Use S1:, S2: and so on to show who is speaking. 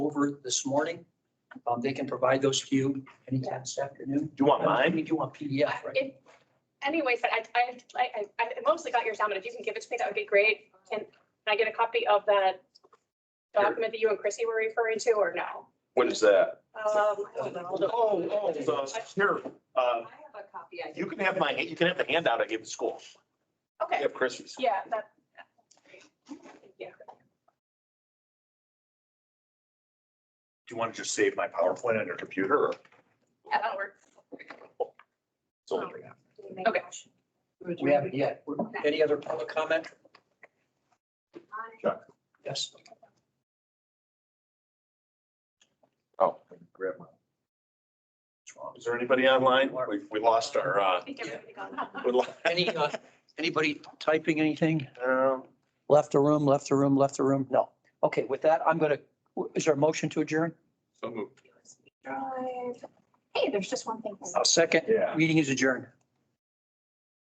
S1: over this morning. Um, they can provide those to you anytime this afternoon.
S2: you want
S1: I
S2: mine?
S1: mean, you want PDF, right?
S3: If, anyways, but I, I, I, I mostly got yours down, but if you can give it to me, that would be great. Can, can I get a copy of that document that you and Chrissy were referring to or no?
S2: What is that?
S3: Um, I don't know. I'll
S1: Uh,
S3: look.
S2: oh, the- here, uh,
S4: I have a copy. I
S2: you can have my, you can have the handout I gave to school. You
S3: Okay,
S2: have Christmas.
S3: yeah, that. Yeah.
S2: Do you want to just save my PowerPoint on your computer or?
S3: Yeah, that'll work. Um,
S2: it's only right now?
S4: can make a
S3: Okay.
S4: motion.
S1: We haven't yet. Any other public comment?
S2: Chuck.
S1: Yes.
S2: Oh. grab mine. Is there anybody online? We, we lost our, uh,
S3: I think everything got it.
S2: we lost-
S1: Any, uh, anybody typing anything?
S2: um,
S1: Left the room, left the room, left the room? No. Okay, with that, I'm gonna, is there a motion to adjourn?
S2: so moved.
S3: Hey, there's just one thing.
S1: I'll second.
S2: Yeah.
S1: Meeting is adjourned.